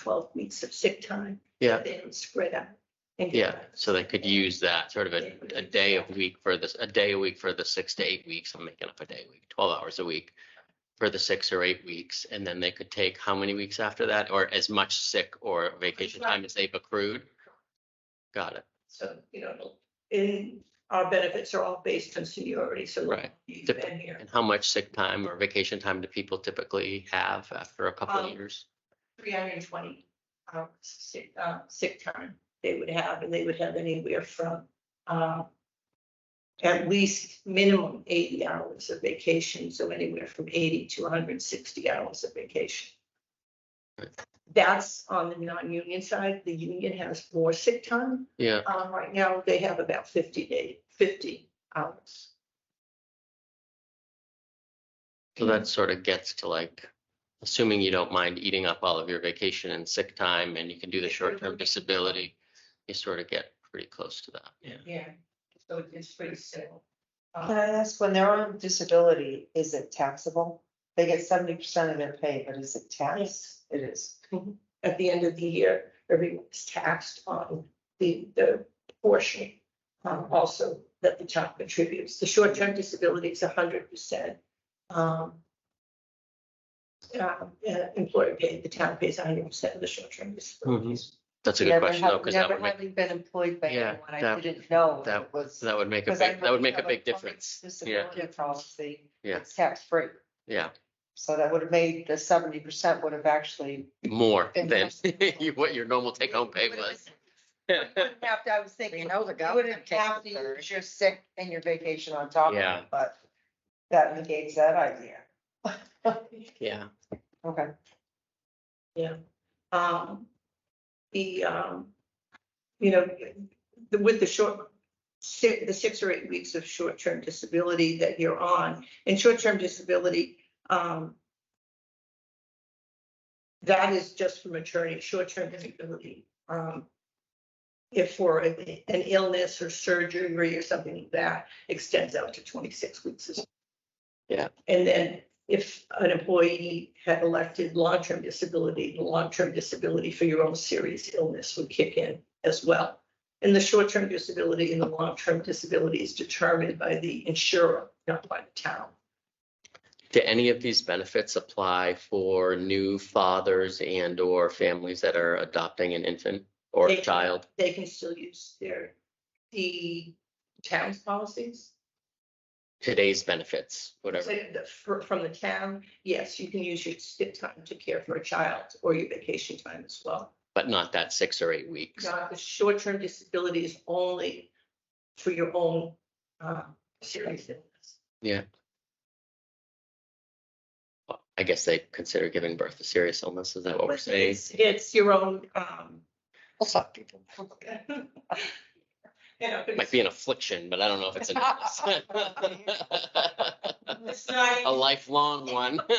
twelve weeks of sick time. Yeah. Then spread out. and get Yeah, back. so they could use that sort of a, a day a week for this, a day a week for the six to eight weeks. I'm making up a day a week, twelve hours a week for the six or eight weeks, and then they could take how many weeks after that, or as much sick or vacation time as they've accrued? Got it. So, you know, it'll- in, our benefits are all based on seniority, so. Right. You've been here And how much sick time or vacation time do people typically have after a couple of Um, years? three hundred and twenty hours sick, uh, sick time they would have, and they would have anywhere from, uh, at least minimum eighty hours of vacation, so anywhere from eighty to hundred and sixty hours of vacation. Right. That's on the non-union side. The union has more sick time. Yeah, Um, right now, they have about fifty day, fifty hours. so that sort of gets to like, assuming you don't mind eating up all of your vacation and sick time, and you can do the short-term disability, you sort of get pretty close to that. Yeah. Yeah, so it's pretty simple. Can Uh, I ask, when they're on disability, is it taxable? They get seventy percent of their pay, but is it taxed? It is. At the end of the year, everyone's taxed on the, the portion, um, also that the town contributes. The short-term disability is hundred percent. Um, uh, employer paid, the town pays hundred percent of the short-term disabilities. That's a good Never question though, hav- because that would Never make, having been employed by Yeah, anyone, I that- didn't know. that- it was. that would make a 'cause I big, that would make a have big public difference. Yeah, Disability policy. Yeah. It's tax free, yeah, so that would have made the seventy percent would have actually. more And than that's- you- what your normal take home pay Would have was. been- you wouldn't have to- I was thinking, You you know the government wouldn't takes have a to third. use your sick and your vacation on top of Yeah. it, but that negates that idea. Yeah, Okay. Um, the, um, you know, the- with the short, si- the six or eight weeks of short-term disability that you're on, and short-term disability, um, that is just for maternity, short-term disability, um, if for a- an illness or surgery or something like that, extends out to twenty-six weeks. as- Yeah. And then if an employee had elected long-term disability, the long-term disability for your own serious illness would kick in as well. And the short-term disability and the long-term disability is determined by the insurer, not by the town. do any of these benefits apply for new fathers and or families that are adopting an infant or They a can- child? They can still use their, the town's policies. Today's benefits, whatever, So the- for- From the town, yes, you can use your sick time to care for a child or your vacation time as well. but not that six or eight weeks. Now, the short-term disability is only for your own uh, serious illness. Well, I guess they consider giving birth a serious illness. Is that what we're saying? It's, it's your own, um, people. you know, It Might be an affliction, but I don't know if it's an illness. it's not- A lifelong one.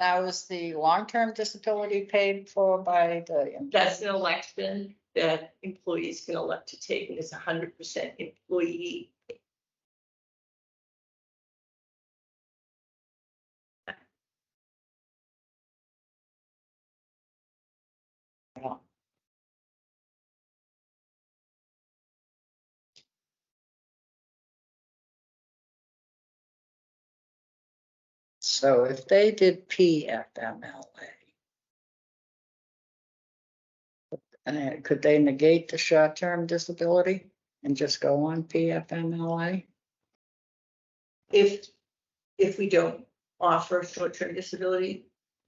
Now, is the long-term disability paid for by the? That's an election that employees can elect to take, and it's hundred percent employee. So if they did PFMLA. And uh, could they negate the short-term disability and just go on PFMLA? If, if we don't offer short-term disability,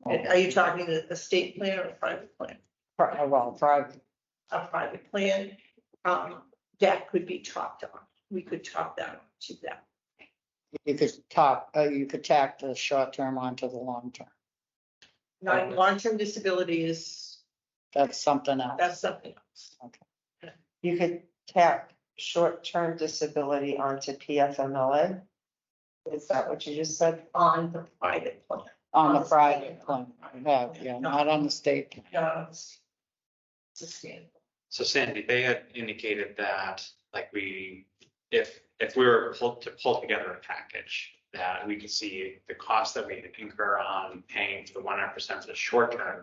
Oh. and are you talking a a state plan or a private plan? Pri- uh, Well, private, a private plan, um, that could be talked on. We could talk that to them. you could top, uh, you could tack the short-term onto the long-term. Not long-term disability is, That's something else. that's something else. You could tack short-term disability onto PFMLA? Is that what you just said? On the private plan. On on the the private state. plan, yeah, yeah, not on the state. plan. No, it's sustainable. So Sandy, they had indicated that, like, we, if, if we were pull- to pull together a package, that we could see the cost that we incur on paying for the one hundred percent for the short term